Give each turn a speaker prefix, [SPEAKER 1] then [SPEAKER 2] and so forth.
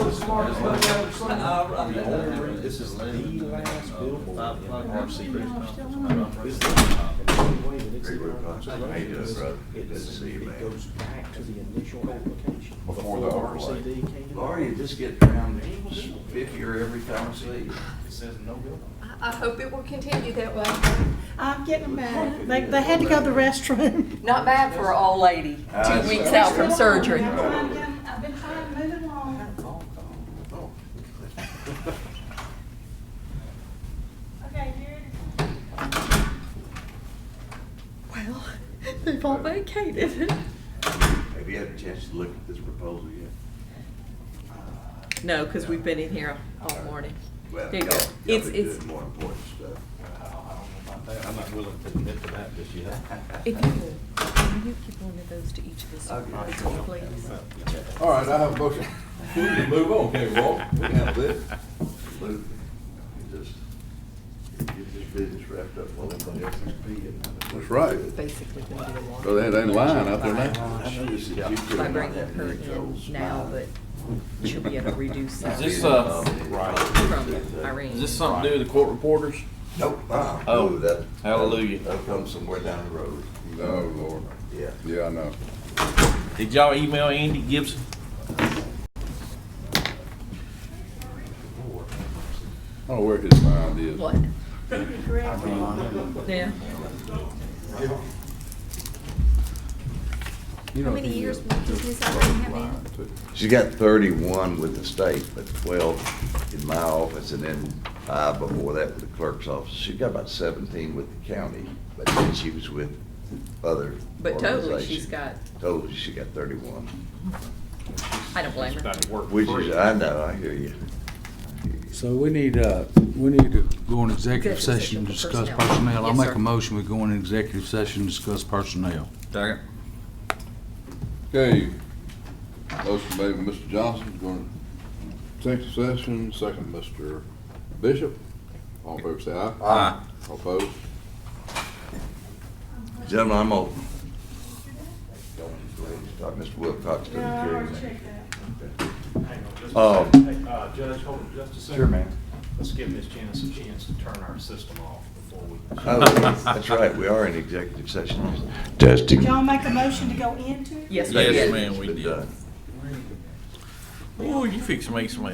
[SPEAKER 1] Mark,
[SPEAKER 2] That's
[SPEAKER 1] on the
[SPEAKER 2] like-
[SPEAKER 1] other side.
[SPEAKER 2] Uh,
[SPEAKER 3] The only, this is the last billboard in RC. This is the only way that it's
[SPEAKER 4] Hey, Rick,
[SPEAKER 3] not-
[SPEAKER 4] I said, "Hey, this, brother. Good to
[SPEAKER 3] it's-
[SPEAKER 4] see you, man."
[SPEAKER 3] It goes back to the initial application.
[SPEAKER 4] Before the overlay.
[SPEAKER 3] RCD came in.
[SPEAKER 2] Laura, you just get around fifty-er every time I see you. It says no bill.
[SPEAKER 5] I I hope it will continue that way.
[SPEAKER 6] I'm getting mad. They, they had to go to the restroom.
[SPEAKER 5] Not bad for an old lady,
[SPEAKER 7] Uh,
[SPEAKER 2] That's
[SPEAKER 5] two weeks
[SPEAKER 2] right.
[SPEAKER 5] out from surgery.
[SPEAKER 6] I'm trying to get- I've been trying to move it along. Okay, Jared.
[SPEAKER 5] Well, they've all vacated.
[SPEAKER 4] Have you had a chance to look at this proposal yet?
[SPEAKER 5] No, because we've been in here all morning.
[SPEAKER 4] Well,
[SPEAKER 5] There you go.
[SPEAKER 4] y'all- y'all
[SPEAKER 5] It's-
[SPEAKER 4] been
[SPEAKER 5] it's-
[SPEAKER 4] doing More important stuff.
[SPEAKER 3] I'm not willing to admit to that just yet.
[SPEAKER 5] If you could, can you give one of those to each of us,
[SPEAKER 4] Okay.
[SPEAKER 5] please?
[SPEAKER 8] All right, I have a motion. We can move on, can't we, Walt? We can handle this.
[SPEAKER 4] Absolutely. You Just, you get this business wrapped up while everybody else is being.
[SPEAKER 8] That's right.
[SPEAKER 5] Basically, going to be a water.
[SPEAKER 8] So that ain't lying out there now?
[SPEAKER 4] I noticed that you could
[SPEAKER 5] By
[SPEAKER 4] not
[SPEAKER 5] bringing
[SPEAKER 4] have
[SPEAKER 5] her
[SPEAKER 4] any Joel's
[SPEAKER 5] in now,
[SPEAKER 4] smile.
[SPEAKER 5] but she'll be able to reduce
[SPEAKER 7] Is
[SPEAKER 5] that
[SPEAKER 7] this,
[SPEAKER 5] from
[SPEAKER 7] uh,
[SPEAKER 4] Right.
[SPEAKER 5] Irene.
[SPEAKER 7] Is this something to do with the court reporters?
[SPEAKER 4] Nope. uh-uh.
[SPEAKER 7] Oh,
[SPEAKER 4] No, that-
[SPEAKER 7] hallelujah.
[SPEAKER 4] That'll come somewhere down the road.
[SPEAKER 8] Oh, Lord.
[SPEAKER 4] Yeah.
[SPEAKER 8] Yeah, I know.
[SPEAKER 7] Did y'all email Andy Gibson?
[SPEAKER 8] I don't know where his mind is.
[SPEAKER 5] What? Yeah.
[SPEAKER 8] You know,
[SPEAKER 5] How many
[SPEAKER 8] he
[SPEAKER 5] years
[SPEAKER 8] is
[SPEAKER 5] will business
[SPEAKER 8] just
[SPEAKER 5] already have
[SPEAKER 8] lying,
[SPEAKER 5] in?
[SPEAKER 8] too.
[SPEAKER 4] She's got thirty-one with the state, but twelve in my office, and then five before that with the clerk's office. She's got about seventeen with the county, but then she was with other
[SPEAKER 5] But totally,
[SPEAKER 4] organizations.
[SPEAKER 5] she's got,
[SPEAKER 4] Totally, she got thirty-one,
[SPEAKER 5] I don't blame her.
[SPEAKER 4] which is, I know, I hear you. I hear you.
[SPEAKER 9] So we need, uh, we need to go in
[SPEAKER 5] Executive
[SPEAKER 9] executive
[SPEAKER 5] session
[SPEAKER 9] session
[SPEAKER 5] for
[SPEAKER 9] to discuss
[SPEAKER 5] personnel.
[SPEAKER 9] personnel. I
[SPEAKER 5] Yes,
[SPEAKER 9] make
[SPEAKER 5] sir.
[SPEAKER 9] a motion, we go in executive session, to discuss personnel.
[SPEAKER 7] Second.
[SPEAKER 8] Okay. Motion made by Mr. Johnson, going to executive session, second Mr. Bishop. All in favor, say aye.
[SPEAKER 7] Aye.
[SPEAKER 8] All opposed?
[SPEAKER 4] Gentlemen, I'm open. Go ahead and start. Mr. Wilcox doesn't
[SPEAKER 6] Yeah, I
[SPEAKER 4] care.
[SPEAKER 6] already checked that.
[SPEAKER 4] Oh.
[SPEAKER 10] Uh, Judge, hold on just a second.
[SPEAKER 2] Sure, man.
[SPEAKER 10] Let's give Ms. Janice a chance to turn our system off before we.
[SPEAKER 4] Oh, that's right, we are in executive session. Testing.
[SPEAKER 6] Did y'all make a motion to go into? it?
[SPEAKER 5] Yes,
[SPEAKER 7] Yes,
[SPEAKER 5] we did.
[SPEAKER 7] ma'am, we did. Ooh, you fix to make some